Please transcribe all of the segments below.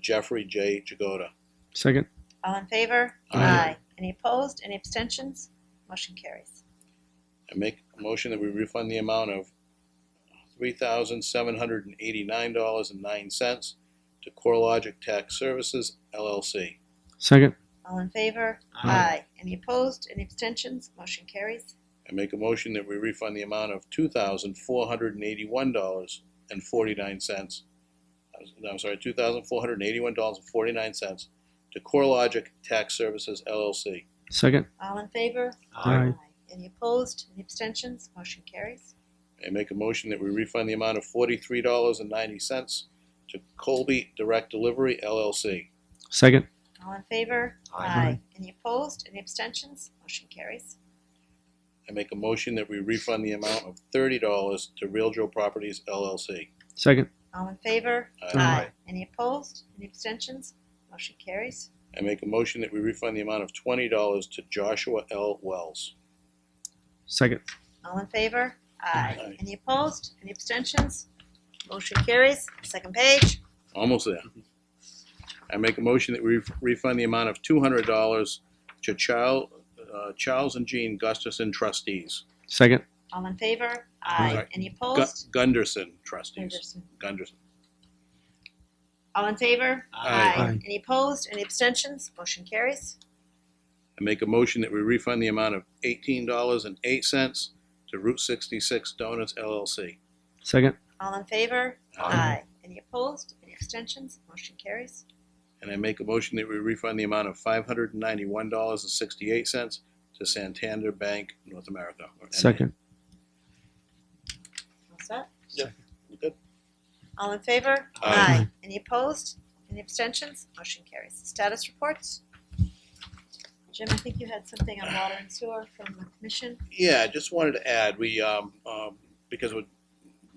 Jeffrey J. Jagoda. Second. All in favor? Aye. Any opposed? Any abstentions? Motion carries. I make a motion that we refund the amount of three thousand seven hundred and eighty-nine dollars and nine cents to CoreLogic Tax Services LLC. Second. All in favor? Aye. Any opposed? Any abstentions? Motion carries. I make a motion that we refund the amount of two thousand four hundred and eighty-one dollars and forty-nine cents. uh, I'm sorry, two thousand four hundred and eighty-one dollars and forty-nine cents to CoreLogic Tax Services LLC. Second. All in favor? Aye. Any opposed? Any abstentions? Motion carries. I make a motion that we refund the amount of forty-three dollars and ninety cents to Colby Direct Delivery LLC. Second. All in favor? Aye. Any opposed? Any abstentions? Motion carries. I make a motion that we refund the amount of thirty dollars to Real Joe Properties LLC. Second. All in favor? Aye. Any opposed? Any abstentions? Motion carries. I make a motion that we refund the amount of twenty dollars to Joshua L. Wells. Second. All in favor? Aye. Any opposed? Any abstentions? Motion carries. Second page. Almost there. I make a motion that we refund the amount of two hundred dollars to Charles, uh, Charles and Jean Gusterson trustees. Second. All in favor? Aye. Any Gu- opposed? Gunderson trustees. Anderson. Gunderson. All in favor? Aye. Aye. Any opposed? Any abstentions? Motion carries. I make a motion that we refund the amount of eighteen dollars and eight cents to Route sixty-six Donuts LLC. Second. All in favor? Aye. Any opposed? Any abstentions? Motion carries. And I make a motion that we refund the amount of five hundred and ninety-one dollars and sixty-eight cents to Santander Bank, North America. or NA. Second. What's that? You Good. All in favor? Aye. Any opposed? Any abstentions? Motion carries. Status reports? Jim, I think you had something on water and sewer from the commission. Yeah, I just wanted to add, we, um, um, because we've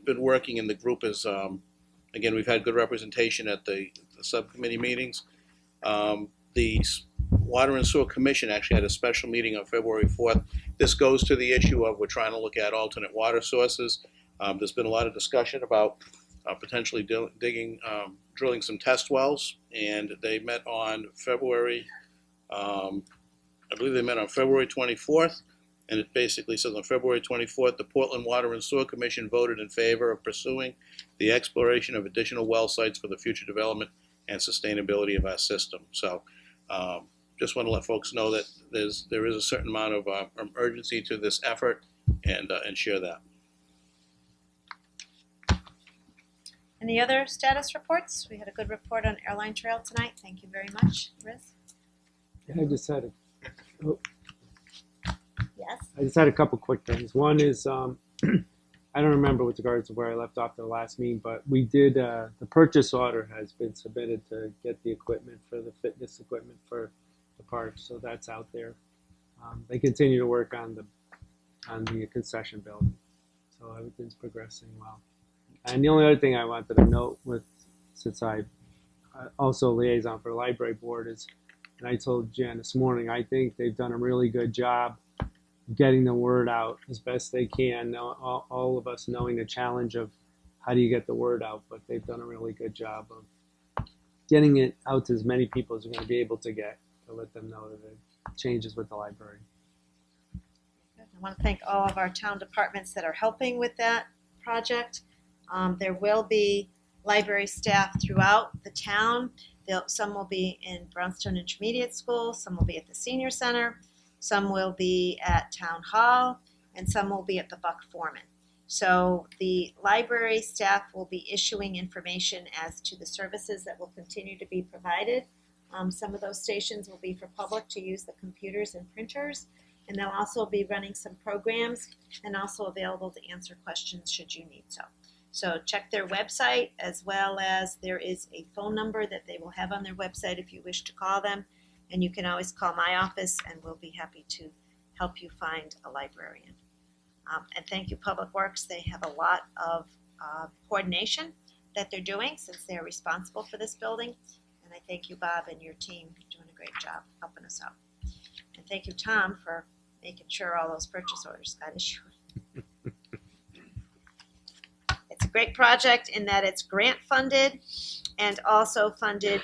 been working in the group is, um, again, we've had good representation at the, the subcommittee meetings. Um, the S- Water and Sewer Commission actually had a special meeting on February fourth. This goes to the issue of we're trying to look at alternate water sources. Um, there's been a lot of discussion about, uh, potentially dil- digging, um, drilling some test wells. And they met on February, um, I believe they met on February twenty-fourth. And it basically says on February 24th, the Portland Water and Sewer Commission voted in favor of pursuing the exploration of additional well sites for the future development and sustainability of our system. So um, just want to let folks know that there's, there is a certain amount of uh, um, urgency to this effort and, uh, and share that. Any other status reports? We had a good report on airline trail tonight. Thank you very much, Riz. I just had a, Yes. I just had a couple quick things. One is, um, I don't remember with regards to where I left off the last meeting, but we did, uh, the purchase order has been submitted to get the equipment for the fitness equipment for the park, so that's out there. Um, they continue to work on the, on the concession building, so everything's progressing well. And the only other thing I wanted to note with, since I, I also liaison for library board is, and I told Jen this morning, I think they've done a really good job getting the word out as best they can. Now, all, all of us knowing the challenge of how do you get the word out, but they've done a really good job of getting it out to as many people as we're going to be able to get to let them know the changes with the library. I want to thank all of our town departments that are helping with that project. Um, there will be library staff throughout the town. They'll, some will be in Brownstone Intermediate School, some will be at the senior center, some will be at town hall, and some will be at the Buck Foreman. So the library staff will be issuing information as to the services that will continue to be provided. Um, some of those stations will be for public to use the computers and printers. And they'll also be running some programs and also available to answer questions should you need so. So check their website as well as there is a phone number that they will have on their website if you wish to call them. And you can always call my office and we'll be happy to help you find a librarian. Um, and thank you, Public Works. They have a lot of uh, coordination that they're doing since they're responsible for this building. And I thank you, Bob, and your team doing a great job helping us out. And thank you, Tom, for making sure all those purchase orders got issued. It's a great project in that it's grant funded and also funded